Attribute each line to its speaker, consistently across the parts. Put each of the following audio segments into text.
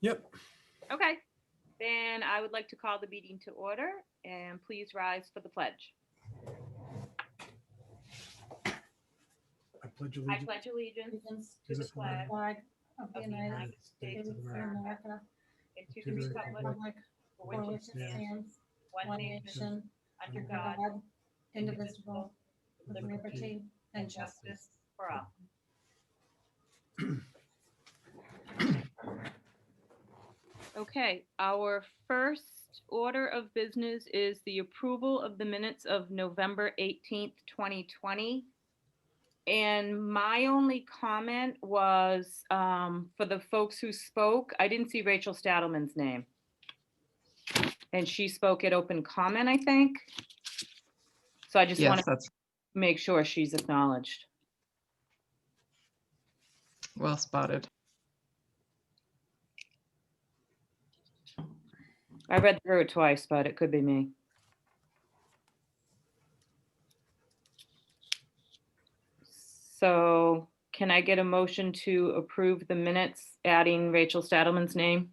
Speaker 1: Yep.
Speaker 2: Okay, then I would like to call the meeting to order and please rise for the pledge.
Speaker 1: I pledge
Speaker 2: I
Speaker 1: allegiance.
Speaker 2: pledge allegiance
Speaker 3: allegiance
Speaker 2: to the
Speaker 1: Jesus, Lord,
Speaker 2: flag
Speaker 3: flag of
Speaker 2: of
Speaker 3: the
Speaker 2: the
Speaker 3: United
Speaker 2: United States
Speaker 3: States
Speaker 2: of
Speaker 3: of
Speaker 2: America
Speaker 3: America,
Speaker 2: and to the republic
Speaker 3: Republic
Speaker 2: for
Speaker 3: for
Speaker 2: which
Speaker 3: which
Speaker 2: it
Speaker 3: it
Speaker 2: stands,
Speaker 3: stands,
Speaker 2: one
Speaker 3: one
Speaker 2: nation,
Speaker 3: nation,
Speaker 2: under
Speaker 3: under
Speaker 2: God,
Speaker 3: God,
Speaker 2: indivisible,
Speaker 3: indivisible, with
Speaker 1: liberty
Speaker 3: liberty and justice.
Speaker 2: for all. Okay, our first order of business is the approval of the minutes of November 18th, 2020. And my only comment was um, for the folks who spoke, I didn't see Rachel Stadelman's name. And she spoke at open comment, I think. So I just want
Speaker 4: Yes,
Speaker 2: to
Speaker 4: that's
Speaker 2: make sure she's acknowledged.
Speaker 4: well spotted.
Speaker 2: I read through it twice, but it could be me. So can I get a motion to approve the minutes adding Rachel Stadelman's name?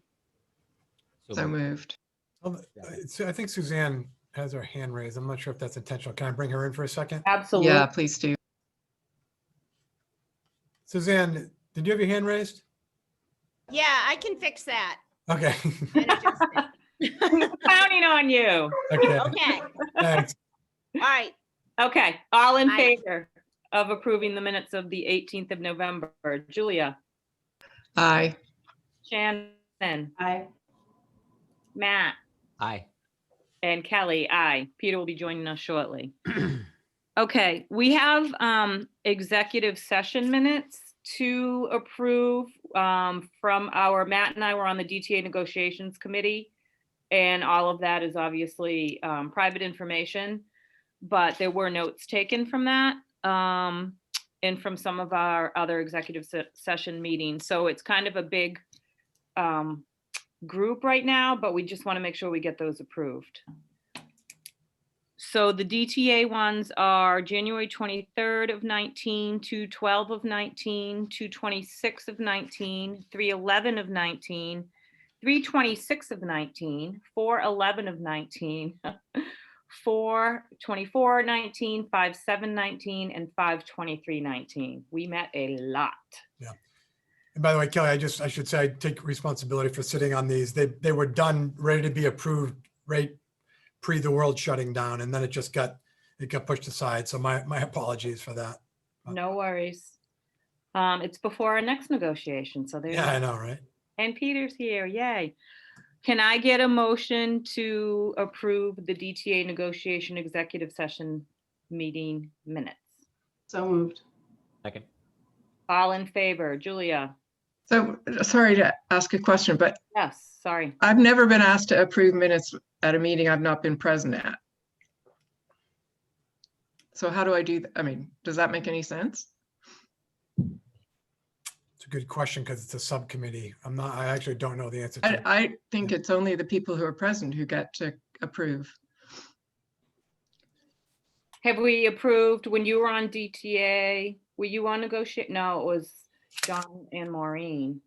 Speaker 4: So moved.
Speaker 1: Oh, it's- I think Suzanne has her hand raised. I'm not sure if that's intentional. Can I bring her in for a second?
Speaker 4: Yeah,
Speaker 2: Absolutely.
Speaker 4: please do.
Speaker 1: Suzanne, did you have your hand raised?
Speaker 5: Yeah, I can fix that.
Speaker 1: Okay,
Speaker 5: and adjust it.
Speaker 2: Counting on you.
Speaker 1: okay,
Speaker 5: Okay,
Speaker 1: thanks.
Speaker 5: all right,
Speaker 2: Okay, all in
Speaker 5: Aye.
Speaker 2: favor of approving the minutes of the 18th of November. Julia,
Speaker 4: Aye.
Speaker 2: Shannon,
Speaker 3: Aye.
Speaker 2: Matt,
Speaker 6: Aye.
Speaker 2: And Kelly, aye. Peter will be joining us shortly. Okay, we have um, executive session minutes to approve um, from our, Matt and I were on the DTA negotiations committee. And all of that is obviously um, private information, but there were notes taken from that um, and from some of our other executive se- session meetings. So it's kind of a big um, group right now, but we just want to make sure we get those approved. So the DTA ones are January 23rd of 19, 212 of 19, 226 of 19, 311 of 19, 326 of 19, 411 of 19, 424 19, 57 19, and 523 19. We met a lot.
Speaker 1: And by the way, Kelly, I just, I should say, I take responsibility for sitting on these. They, they were done, ready to be approved right pre the world shutting down, and then it just got, it got pushed aside. So my, my apologies for that.
Speaker 2: No worries. Um, it's before our next negotiation, so there's.
Speaker 1: Yeah, I know, right?
Speaker 2: And Peter's here, yay. Can I get a motion to approve the DTA negotiation executive session meeting minutes?
Speaker 3: So moved.
Speaker 6: Second.
Speaker 2: All in favor, Julia?
Speaker 4: So, sorry to ask a question, but
Speaker 2: Yes, sorry.
Speaker 4: I've never been asked to approve minutes at a meeting I've not been present at. So how do I do, th- I mean, does that make any sense?
Speaker 1: It's a good question because it's a subcommittee. I'm not, I actually don't know the answer to
Speaker 4: I,
Speaker 1: it.
Speaker 4: I think it's only the people who are present who get to approve.
Speaker 2: Have we approved, when you were on DTA, were you on negotiate? No, it was John and Maureen.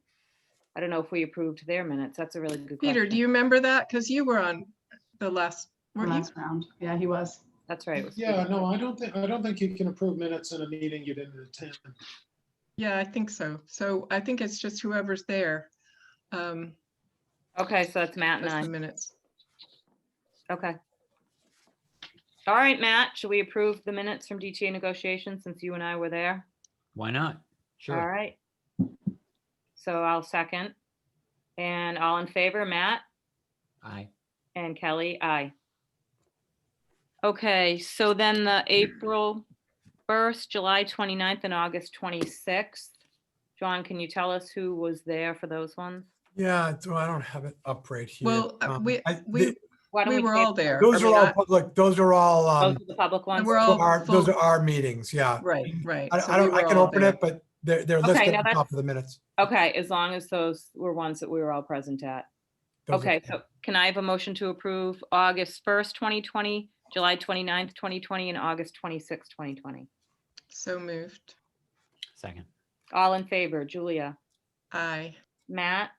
Speaker 2: I don't know if we approved their minutes. That's a really good question.
Speaker 4: Peter, do you remember that? Because you were on the last, weren't you?
Speaker 3: Last round. Yeah, he was.
Speaker 2: That's right. it was-
Speaker 7: Yeah, no, I don't think, I don't think you can approve minutes in a meeting you didn't attend.
Speaker 4: Yeah, I think so. So I think it's just whoever's there. um,
Speaker 2: Okay, so that's Matt and I.
Speaker 4: does the minutes.
Speaker 2: Okay. All right, Matt, should we approve the minutes from DTA negotiations since you and I were there?
Speaker 6: Why not?
Speaker 2: All
Speaker 6: Sure.
Speaker 2: right. So I'll second. And all in favor, Matt
Speaker 6: Aye.
Speaker 2: and Kelly, aye. Okay, so then the April 1st, July 29th, and August 26th. John, can you tell us who was there for those ones?
Speaker 1: Yeah, so I don't have it up right here.
Speaker 4: Well, uh,
Speaker 1: Um,
Speaker 4: we,
Speaker 1: I-
Speaker 4: we,
Speaker 1: the-
Speaker 2: Why don't
Speaker 4: we were
Speaker 2: save
Speaker 4: all there.
Speaker 1: Those
Speaker 4: I
Speaker 1: are
Speaker 4: mean,
Speaker 1: all
Speaker 4: I-
Speaker 1: public, those are all,
Speaker 2: Those
Speaker 1: um,
Speaker 2: are the public ones.
Speaker 4: We're all
Speaker 1: our, those
Speaker 4: full-
Speaker 1: are our meetings, yeah.
Speaker 4: Oh, Right, right.
Speaker 1: I,
Speaker 4: So
Speaker 1: I
Speaker 4: we
Speaker 1: don't, I
Speaker 4: were
Speaker 1: can
Speaker 4: all
Speaker 1: open
Speaker 4: there.
Speaker 1: it, but they're, they're
Speaker 2: Okay,
Speaker 1: listed
Speaker 2: now
Speaker 1: at the top
Speaker 2: that's-
Speaker 1: of the minutes.
Speaker 2: Okay, as long as those were ones that we were all present at.
Speaker 1: Those are-
Speaker 2: Okay, so can I have a motion to approve August 1st, 2020, July 29th, 2020, and August 26th, 2020?
Speaker 4: So moved.
Speaker 6: Second.
Speaker 2: All in favor, Julia,
Speaker 4: Aye.
Speaker 2: Matt,